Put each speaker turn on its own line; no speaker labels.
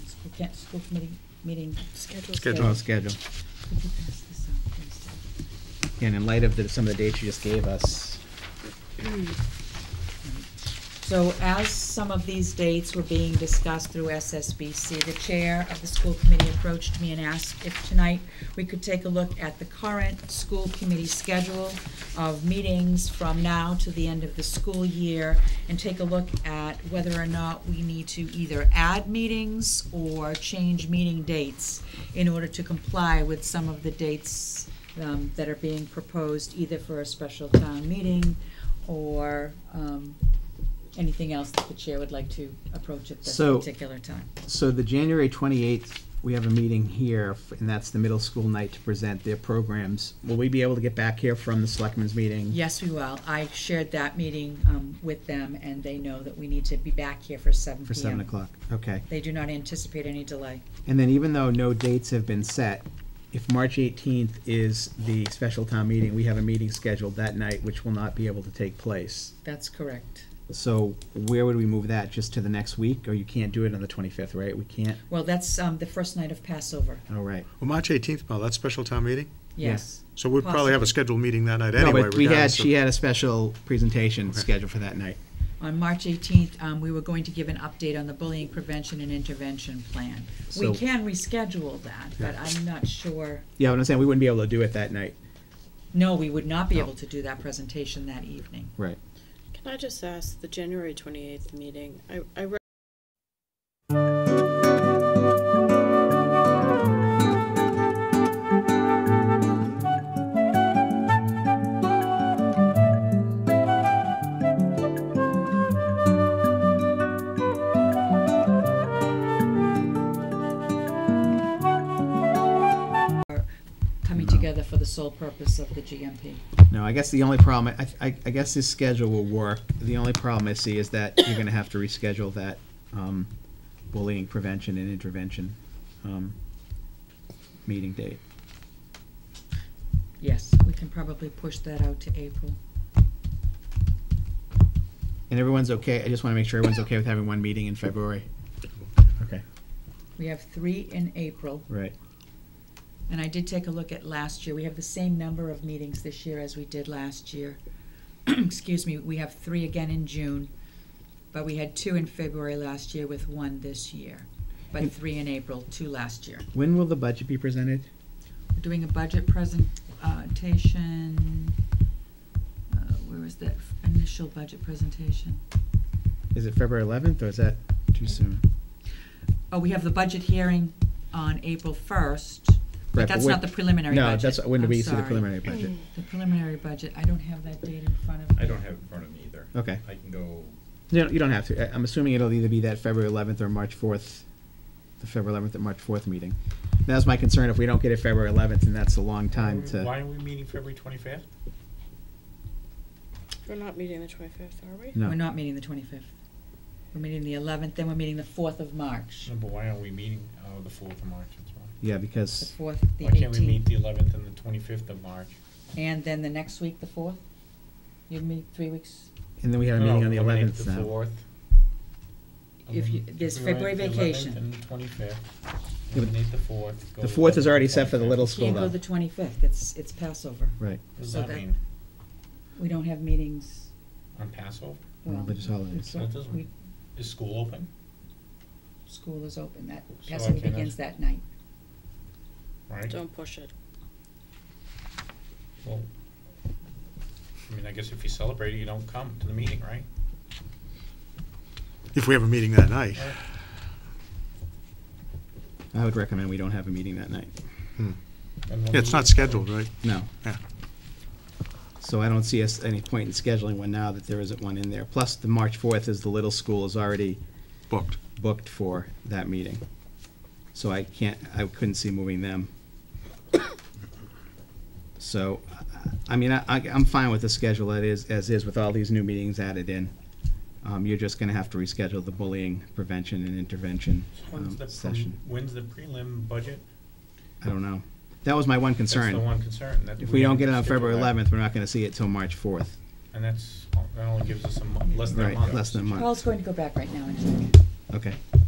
School ca- school committee meeting. Schedule.
on Oh, schedule.
Could you pass this out, please?
And in light of the, some of the dates you just gave us,
So as some of these dates were being discussed through SSBC, the chair of the school committee approached me and asked if tonight we could take a look at the current school committee schedule of meetings from now to the end of the school year and take a look at whether or not we need to either add meetings or change meeting dates in order to comply with some of the dates um, that are being proposed, either for a special town meeting or um, anything else that the chair would like to approach at this
So-
particular time.
so the January twenty-eighth, we have a meeting here, f- and that's the middle school night to present their programs. Will we be able to get back here from the selectmen's meeting?
Yes, we will. I shared that meeting um, with them, and they know that we need to be back here for seven
For seven
PM.
o'clock, okay.
They do not anticipate any delay.
And then even though no dates have been set, if March eighteenth is the special town meeting, we have a meeting scheduled that night, which will not be able to take place.
That's correct.
So where would we move that? Just to the next week, or you can't do it on the twenty-fifth, right? We can't?
Well, that's um, the first night of Passover,
All right.
Well, March 18th, Paul, that's special town meeting?
yes.
So we'd probably have a scheduled meeting that night anyway.
No, but we had,
regardless of-
she had a special presentation
Okay.
scheduled for that night.
On March 18th, um, we were going to give an update on the bullying prevention and intervention plan. We
So-
can reschedule that, but
Yeah.
I'm not sure,
Yeah, what I'm saying, we wouldn't be able to do it that night.
no, we would not be
No.
able to do that presentation that evening.
Right.
Can I just ask, the January 28th meeting, I, I read
Coming
No.
together for the sole purpose of the GMP.
No, I guess the only problem, I, I, I guess this schedule will work. The only problem I see is that you're gonna have to reschedule that, um, bullying prevention and intervention, um, meeting date.
Yes, we can probably push that out to April.
And everyone's okay, I just wanna make sure everyone's okay with having one meeting in February. Okay.
We have three in April,
Right.
and I did take a look at last year. We have the same number of meetings this year as we did last year. Excuse me, we have three again in June, but we had two in February last year with one this year. But three in April, two last year.
When will the budget be presented?
We're doing a budget presentation, uh, where was that f- initial budget presentation?
Is it February eleventh, or is that too soon?
Oh, we have the budget hearing on April first,
Right,
but that's
when-
not the preliminary
No,
budget.
that's, when do
I'm
we see the
sorry.
preliminary budget?
The preliminary budget, I don't have that date in front of me.
I don't have it in front of me either.
Okay.
I can go,
You don't, you don't have to. I- I'm assuming it'll either be that February 11th or March 4th, the February 11th or March 4th meeting. That was my concern. If we don't get it February 11th, then that's a long time
Why
to.
are we meeting February twenty-fifth?
we're not meeting the 25th, are we?
We're
No,
not meeting the twenty-fifth. We're meeting the eleventh, then we're meeting the fourth of March,
No, but why are we meeting, oh, the fourth of March, that's why.
yeah,
the
because
fourth, the
Why can't we meet
eighteenth,
the eleventh and the twenty-fifth of March?
and then the next week, the fourth? You meet three weeks,
and then we had a
No,
meeting on the
eliminate
11th
Oh, The
now.
fourth.
If you-
Eliminate-
there's
if we went
February
the 11th
vacation.
And the twenty-fifth,
but
eliminate the fourth. go
The 4th is
11th,
already set for the
25th.
little school
can't go
though.
the twenty-fifth, it's, it's Passover.
Right.
What does
so
that
that-
mean,
We don't have meetings,
on Passover,
well.
Religious holidays.
it's
So it
what-
doesn't-
we-
is school open?
School is open, that,
So I
Passover
cannot-
begins that night.
Right,
Don't push it.
well, I mean, I guess if you celebrate it, you don't come to the meeting, right?
If we have a meeting that night.
I would recommend we don't have a meeting that night.
And we'll
Yeah, it's
meet-
not scheduled, right?
No.
Yeah.
So I don't see us any point in scheduling one now that there isn't one in there. Plus, the March 4th is the little school is already
Booked.
booked for that meeting. So I can't, I couldn't see moving them. So, I- I mean, I, I- I'm fine with the schedule that is, as is with all these new meetings added in. Um, you're just gonna have to reschedule the bullying prevention and intervention
When's
um,
the,
session.
prem- when's the prelim budget?
I don't know. That was my one
That's the
concern.
one concern. that
If we don't
haven't
get it on
scheduled
February
that.
eleventh, we're not gonna see it till March fourth.
And that's, that only gives us a month, less than a
Right,
month.
less than a month.
Paul's going to go back right now and check.
Okay.